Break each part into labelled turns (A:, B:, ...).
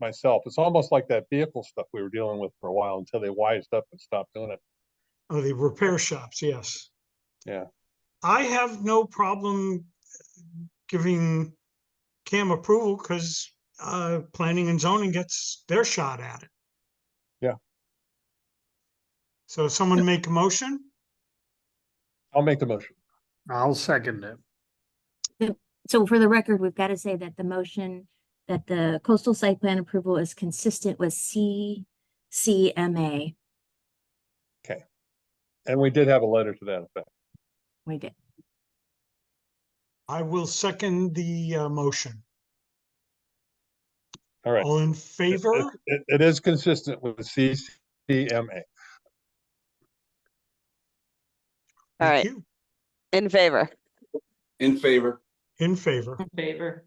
A: myself. It's almost like that vehicle stuff we were dealing with for a while until they wised up and stopped doing it.
B: Oh, the repair shops, yes.
A: Yeah.
B: I have no problem giving CAM approval because uh, planning and zoning gets their shot at it.
A: Yeah.
B: So someone make a motion?
A: I'll make the motion.
C: I'll second it.
D: So for the record, we've got to say that the motion that the coastal site plan approval is consistent with CCMA.
A: And we did have a letter to that effect.
D: We did.
B: I will second the uh, motion.
A: All right.
B: All in
A: It-
B: favor?
A: It, it is consistent with CCMA.
E: All
B: Thank
E: right,
B: you.
E: in favor.
F: In favor.
B: In favor.
G: favor.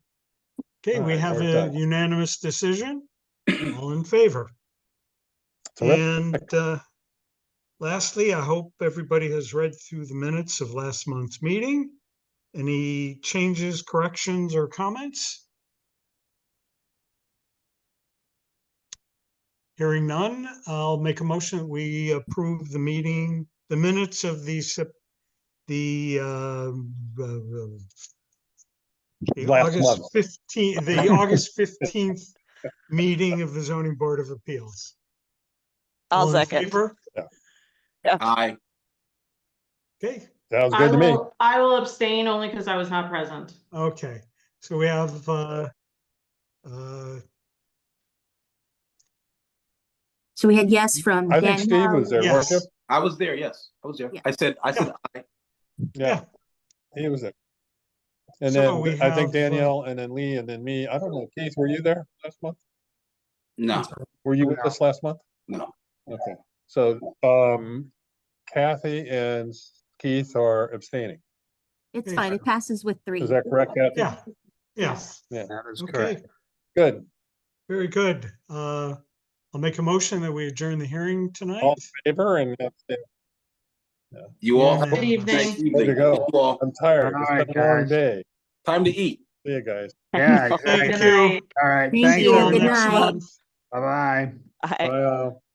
B: Okay,
A: All
B: we
A: right,
B: have
A: we're
B: a
A: done.
B: unanimous decision. All in favor?
A: Terrific.
B: And uh, lastly, I hope everybody has read through the minutes of last month's meeting. Any changes, corrections, or comments? Hearing none, I'll make a motion that we approve the meeting, the minutes of the Sep- the um, uh, uh, the
A: Last
B: August
A: month.
B: fifteen, the August fifteenth meeting of the zoning board of appeals.
E: I'll
B: All in
E: second.
B: favor?
F: Aye.
B: Okay,
A: Sounds
G: I
A: good to me.
G: will, I will abstain only because I was not present.
B: okay, so we have, uh, uh,
D: So we had yes from
A: I think Steve was there,
D: Danielle.
A: weren't you?
B: Yes.
F: I was there, yes. I was there.
D: Yeah.
F: I said, I said, aye.
A: Yeah. He was there. And
B: So
A: then
B: we
A: th- I
B: have,
A: think
B: uh,
A: Danielle and then Lee and then me. I don't know. Keith, were you there last month?
F: no,
A: Were you with us last month?
F: no.
A: Okay, so, um, Kathy and Keith are abstaining.
D: It's fine. It passes with three.
A: Is that correct, Kathy?
B: yeah, yeah,
C: That is
B: okay,
C: correct.
A: Good.
B: very good. Uh, I'll make a motion that we adjourn the hearing
A: All
B: tonight.
A: in favor and abstain.
F: You all.
B: Good
G: evening.
F: Nice
A: Way to go.
F: You all.
A: I'm tired.
C: All
A: It's
C: right,
A: been a long
C: guys.
A: day.
F: Time to eat.
A: See you guys.
C: Yeah,
B: Thank
C: exactly.
B: you.
C: All right,
D: Thank
C: thank
D: you.
B: Till
C: you.
D: Good
B: next
D: night.
B: month.
C: Bye-bye.
E: Aye.
A: Bye. all.